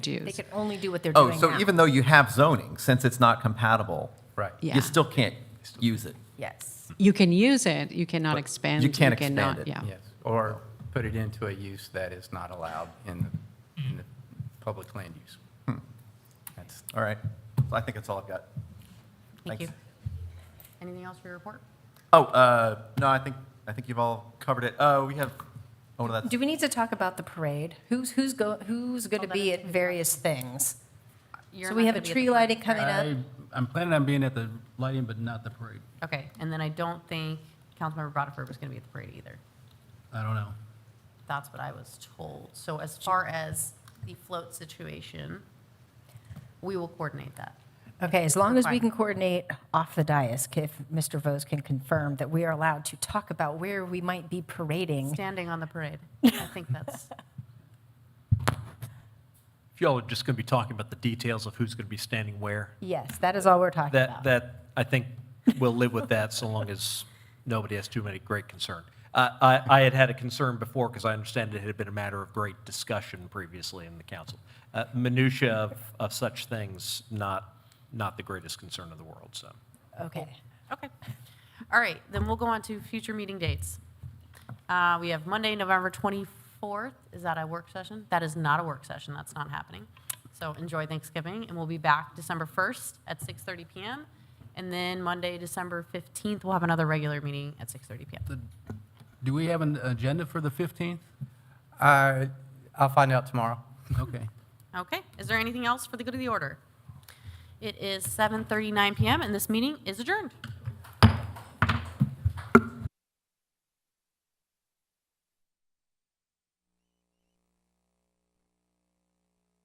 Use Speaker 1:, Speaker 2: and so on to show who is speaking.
Speaker 1: dues.
Speaker 2: They can only do what they're doing
Speaker 3: Oh,
Speaker 2: now.
Speaker 3: so even though you have zoning, since it's not compatible,
Speaker 4: Right.
Speaker 1: Yeah.
Speaker 3: you still can't use it.
Speaker 2: Yes,
Speaker 1: You can use it, you cannot
Speaker 3: But
Speaker 1: expand.
Speaker 3: you can't expand
Speaker 1: cannot-
Speaker 3: it.
Speaker 1: Yeah.
Speaker 4: Yes, or put it into a use that is not allowed in the, in the public land use. That's,
Speaker 3: All right. So I think that's all I've got.
Speaker 2: thank you.
Speaker 3: Thanks.
Speaker 2: Anything else for your report?
Speaker 3: Oh, uh, no, I think, I think you've all covered it. Uh, we have, oh, no, that's,
Speaker 2: Do we need to talk about the parade? Who's, who's go, who's going to be at various things? So we have a tree lighting coming up?
Speaker 5: I, I'm planning on being at the lighting, but not the parade.
Speaker 6: Okay, and then I don't think Councilmember Rutherford was going to be at the parade either.
Speaker 5: I don't know.
Speaker 6: That's what I was told. So as far as the float situation, we will coordinate that.
Speaker 2: Okay, as long as we
Speaker 6: Fine.
Speaker 2: can coordinate off the dais, if Mr. Vose can confirm that we are allowed to talk about where we might be parading.
Speaker 6: Standing on the parade, I think that's,
Speaker 7: If y'all are just going to be talking about the details of who's going to be standing where,
Speaker 2: Yes, that is all we're talking
Speaker 7: that,
Speaker 2: about.
Speaker 7: that, I think we'll live with that so long as nobody has too many great concern. I, I, I had had a concern before because I understand it had been a matter of great discussion previously in the council. Uh, Minutia of, of such things, not, not the greatest concern of the world, so.
Speaker 2: Okay.
Speaker 6: okay. All right, then we'll go on to future meeting dates. Uh, We have Monday, November 24th. Is that a work session? That is not a work session, that's not happening. So enjoy Thanksgiving, and we'll be back December 1st at 6:30 PM. And then Monday, December 15th, we'll have another regular meeting at 6:30 PM.
Speaker 5: Do we have an agenda for the 15th?
Speaker 4: I, I'll find out tomorrow.
Speaker 5: Okay.
Speaker 6: Okay, is there anything else for the good of the order? It is 7:39 PM, and this meeting is adjourned.